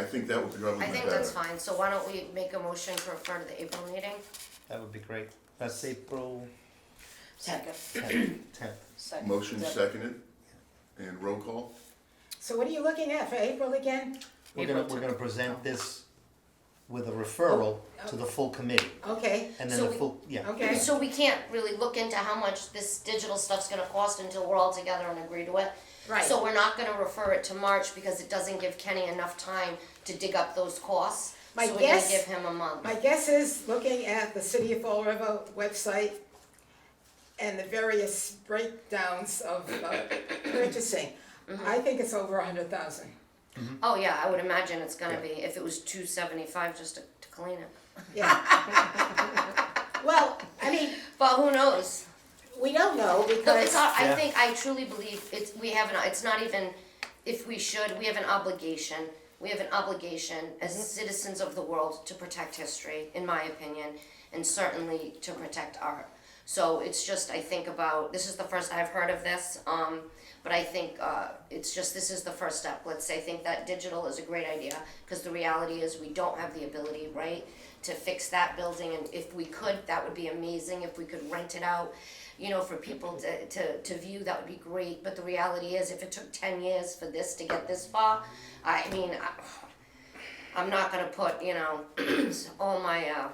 I think that would probably I be think better. that's fine, so why don't we make a motion for front of the April meeting? That would be great. That's April Second. 10th. Second. Motion Yep. seconded, and roll call? So what are you looking at for April again? We're gonna, April we're gonna present this with a referral to the full committee. Okay, And then So the we- full, yeah. okay. So we can't really look into how much this digital stuff's gonna cost until we're all together and agree to it. Right. So we're not gonna refer it to March because it doesn't give Kenny enough time to dig up those costs. My So we're gonna guess- give him a month. My guess is, looking at the City of Fall River website and the various breakdowns of uh, purchasing, Mm-hmm. I think it's over a hundred thousand. Oh, yeah, I would imagine it's gonna Yeah. be, if it was two seventy-five just to, to clean it. Yeah. Well, I mean, But who knows? we don't know No, it's because, not, I Yeah. think, I truly believe it's, we have an, it's not even, if we should, we have an obligation. We have an obligation as citizens of the world to protect history, in my opinion, and certainly to protect art. So it's just, I think about, this is the first I've heard of this, um, but I think, uh, it's just, this is the first step. Let's say, I think that digital is a great idea, cause the reality is we don't have the ability, right, to fix that building, and if we could, that would be amazing, if we could rent it out you know, for people to, to, to view, that would be great. But the reality is, if it took 10 years for this to get this far, I mean, I, I'm not going to put, you know, all my uh,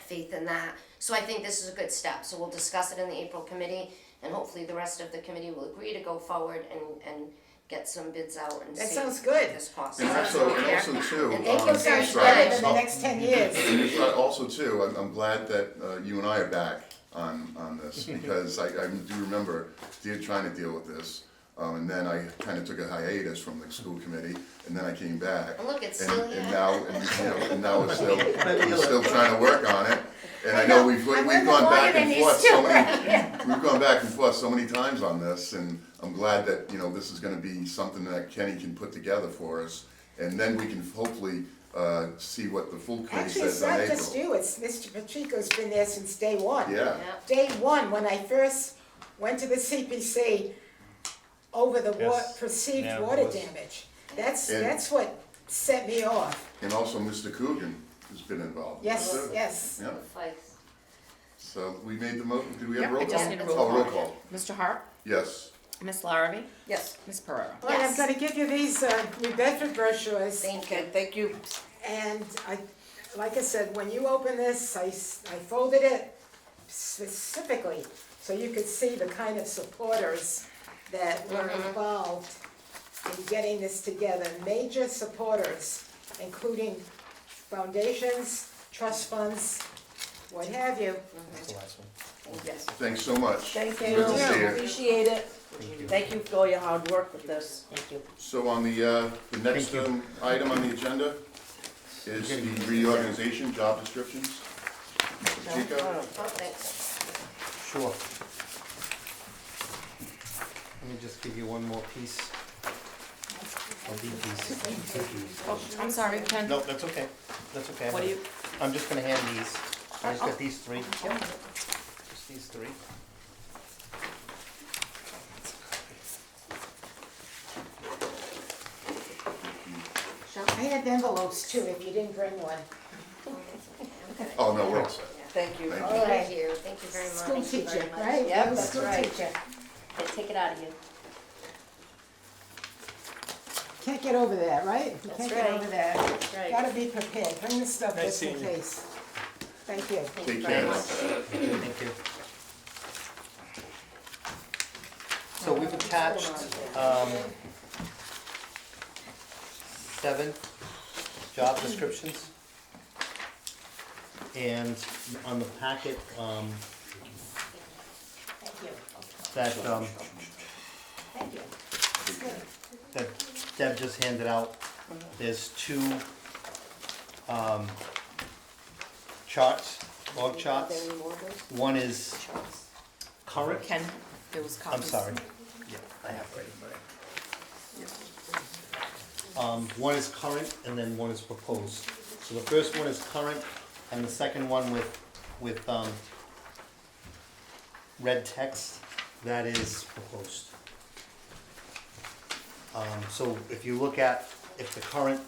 faith in that. So I think this is a good step. So we'll discuss it in the April committee, and hopefully the rest of the committee will agree to go forward and, and get some bids out and That see sounds good. what this costs. And also, and also too. And April um, sounds Sorry. better than the Oh, next ten years. and it's not- Also too, I'm, I'm glad that, uh, you and I are back on, on this, because I, I do remember de- trying to deal with this. Um, and then I kinda took a hiatus from the school committee, and then I came back. And look, it's And, still and here. now, and, you know, and now we're still, Maybe we're you'll- still trying to work on it. And I I know know. we've, we've I'm gone living longer back than and these forth so two, many, we've gone back and forth so many times on this, and I'm glad that, you know, this is gonna be something that Kenny can put together for us. And then we can hopefully, uh, see what the full committee Actually, it's says on not just April. you, it's Mr. Pacheco's been there since day one. Yeah, Yeah. Day one, when I first went to the CPC over the wa- Yes. Yeah, perceived it water was. damage. That's, And- that's what set me off. and also Mr. Coogan has been involved. in this Yes, too. yes. Yeah, Fights. so we made the mo, did we have Yeah, roll I call? just need a roll Oh, roll call. call, Mr. Hart, yes. Miss Larrabee, Yes. Miss Pereira. All right, I'm Yes. gonna give you these, uh, New Bedford brochures. Thank you. Okay, thank you. And I, like I said, when you open this, I, s- I folded it specifically so you could see the kind of supporters that were involved in getting this together. Major supporters, including foundations, trust funds, what have you. That's the last one. Yes. Thanks so much. Thank Good to see you. you. Appreciate it. Thank you for all your hard work with this. Thank you. So on the, uh, the next Thank you. um, item on the agenda is the reorganization, job descriptions. Mr. Pacheco? Oh, thanks. Sure. Let me just give you one more piece. I'll leave these. Oh, I'm sorry, Ken. No, that's okay. That's okay. What do you, I'm just gonna hand these. I just got these three. Just these three. I had envelopes too, if you didn't bring one. Oh, no, we're all set. Thank you. Thank you. All Thank right. you, thank you very much. School Thank you very teacher, much. right? Yep, I'm a that's school right. teacher. Okay, take it out of you. Can't get over that, right? You That's Can't get right. over that. That's right. Gotta be prepared, bring the stuff Nice just in seeing you. case. Thank you. Thank Take you very care. much. Thank you. So we've attached, um, seven job descriptions. And on the packet, um, Thank you. that, um, Thank you. that Deb just handed out, there's two, um, charts, log charts. One is current Ken, there was copies. I'm sorry. Yeah, I have it right in front of me. Um, one is current and then one is proposed. So the first one is current and the second one with, with, um, red text, that is proposed. Um, so if you look at, if the current